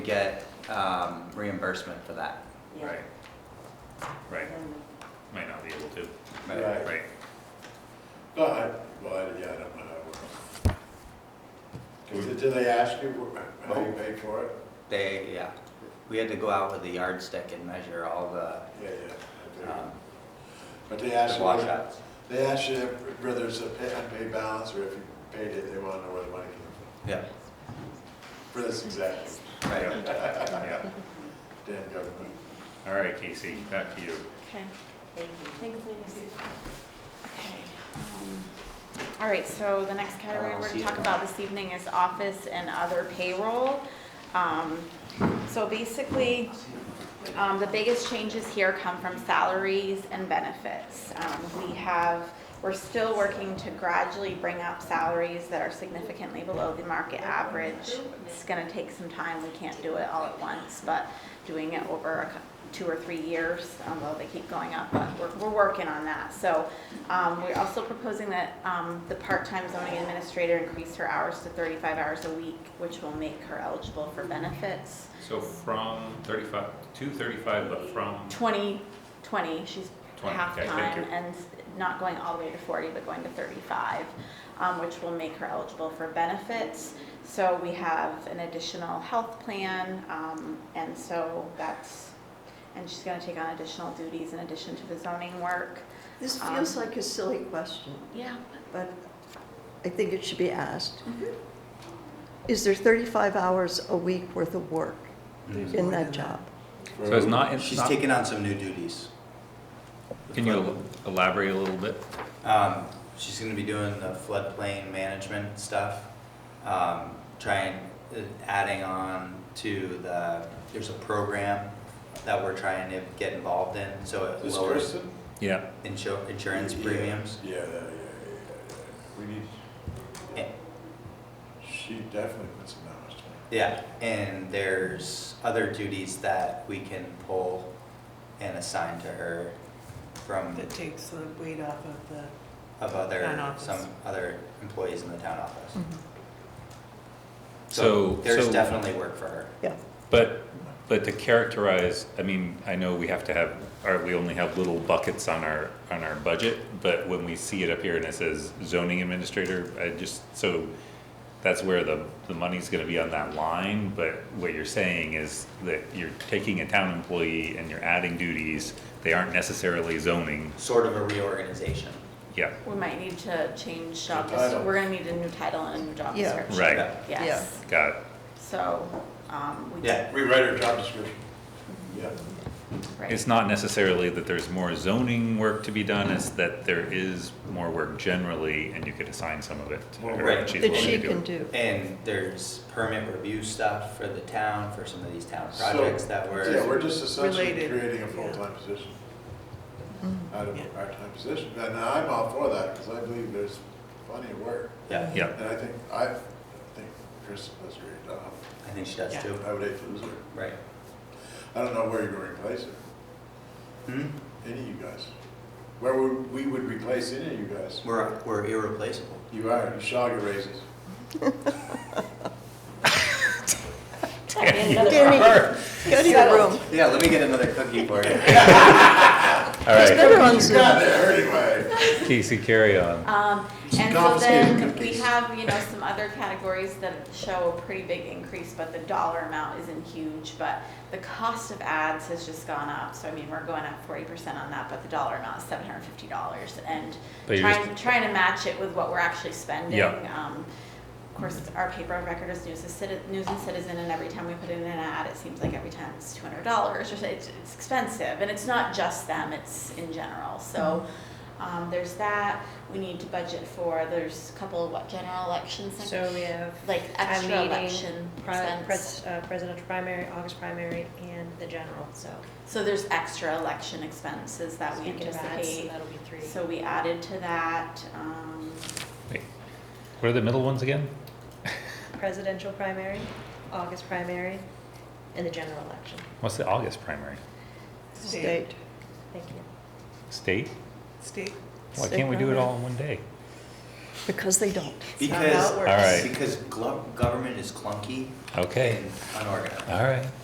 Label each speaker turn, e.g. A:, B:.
A: get um, reimbursement for that.
B: Yeah.
C: Right. Right,
B: And
C: might not be able to,
A: But-
C: right,
D: But, but, yeah, I don't know how it works. Do do they ask you wh- how you pay for it?
A: They, yeah, we had to go out with a yardstick and measure all the
D: Yeah, yeah. I do.
A: um,
D: But they
A: the
D: ask you, whether-
A: washouts.
D: they ask you whether it's a pay- unpaid balance or if you paid it, they want to know where the money came
A: Yeah,
D: from. For this exactly,
A: right.
C: yeah.
D: damn government.
C: All right, Casey, back to you.
E: Okay,
B: Thank you.
E: thanks, ladies. Okay. um, All right, so the next category we're gonna talk about this evening is office and other payroll. Um, So basically, um, the biggest changes here come from salaries and benefits. Um, We have, we're still working to gradually bring up salaries that are significantly below the market average. It's gonna take some time, we can't do it all at once, but doing it over a cou- two or three years, although they keep going up, but we're, we're working on that. So, um, we're also proposing that, um, the part-time zoning administrator increase her hours to thirty-five hours a week, which will make her eligible for benefits.
C: So from thirty-five, to thirty-five, but from,
E: 20, 20, she's
C: 20,
E: half
C: okay, thank
E: time
C: you.
E: and not going all the way to 40, but going to 35, um, which will make her eligible for benefits. So we have an additional health plan, um, and so that's, and she's gonna take on additional duties in addition to the zoning work.
F: This
E: Um,
F: feels like a silly question,
E: Yeah.
F: but I think it should be asked. Is there 35 hours a week worth of work in that job?
C: so it's not, it's
A: She's
C: not,
A: taking on some new duties.
C: can you elaborate a little bit?
A: Um, She's gonna be doing the floodplain management stuff, um, trying, adding on to the, there's a program that we're trying to get involved in, so it
D: This
A: lowers
D: person?
C: Yeah.
A: insu- insurance premiums.
D: Yeah, yeah, yeah, yeah, yeah. We need,
A: And-
D: she definitely puts some hours in.
A: Yeah, and there's other duties that we can pull and assign to her from,
G: That takes the weight off of the,
A: of other,
G: Town office. Mm-hmm.
A: some other employees in the town office.
C: So,
A: There's
C: so-
A: definitely work for her.
F: Yeah.
C: But, but to characterize, I mean, I know we have to have, or we only have little buckets on our, on our budget, but when we see it up here and it says zoning administrator, I just, so that's where the, the money's gonna be on that line, but what you're saying is that you're taking a town employee and you're adding duties, they aren't necessarily zoning,
A: Sort of a reorganization.
C: yeah,
E: We might need to change job,
D: New title.
E: we're gonna need a new title and a new job
F: Yeah.
E: description.
C: right,
E: Yes,
C: got it.
E: so, um, we.
A: Yeah,
D: Rewrite her job description. Yeah,
E: right.
C: It's not necessarily that there's more zoning work to be done, it's that there is more work generally, and you could assign some of it. to her, and
A: Right.
C: she's
F: That
C: willing
F: she
C: to do
F: can
C: it.
F: do.
A: and there's permit review stuff for the town, for some of these town
D: So-
A: projects that
D: yeah,
A: were,
D: we're just essentially
G: Related,
D: creating a
G: yeah.
D: full-time position. out of
G: Yeah.
D: a part-time position. And I'm all for that, because I believe there's plenty of work.
A: yeah,
C: Yeah,
D: And I think, I think Chris does a great job.
A: I think she does
G: Yeah.
A: too,
D: I would hate to lose her.
A: right?
D: I don't know where you're gonna replace her,
A: Hmm?
D: any of you guys. Where would, we would replace any of you guys.
A: We're, we're irreplaceable.
D: You are, you shall get raises.
F: Danny, go to your room.
A: Yeah, let me get another cookie for you.
C: all right,
F: Better on
D: You
F: Zoom.
D: got there anyway.
C: Casey, carry on.
E: Um,
D: Some
E: and so
D: confiscated
E: then we
D: cookies.
E: have, you know, some other categories that show a pretty big increase, but the dollar amount isn't huge, but the cost of ads has just gone up, so I mean, we're going up forty percent on that, but the dollar amount is seven hundred and fifty dollars, and
C: But you're
E: trying, trying to match it with what we're actually spending.
C: Yeah.
E: Um, of course, it's our paper of record is News and Citi- News and Citizen, and every time we put in an ad, it seems like every time it's two hundred dollars, or so- it's, it's expensive, and it's not just them, it's in general, so.
C: Mm-hmm.
E: Um, there's that, we need to budget for, there's a couple, what, general elections, next-
H: So we have
E: like
H: town
E: extra
H: meeting,
E: election
H: pri-
E: expense.
H: pres- uh, presidential primary, August primary, and the general, so.
E: So there's extra election expenses that we
H: speaking of ads,
E: anticipate,
H: That'll be three.
E: so we added to that, um,
C: Wait, What are the middle ones again?
H: Presidential primary, August primary, and the general election.
C: What's the August primary?
G: state,
F: State.
H: Thank you.
C: State?
G: state.
C: Why can't we do it all in one day?
F: Because they don't.
G: not how it
A: Because,
G: works.
C: All right.
A: because glo- government is clunky
C: Okay,
A: and unorganized.
C: all right.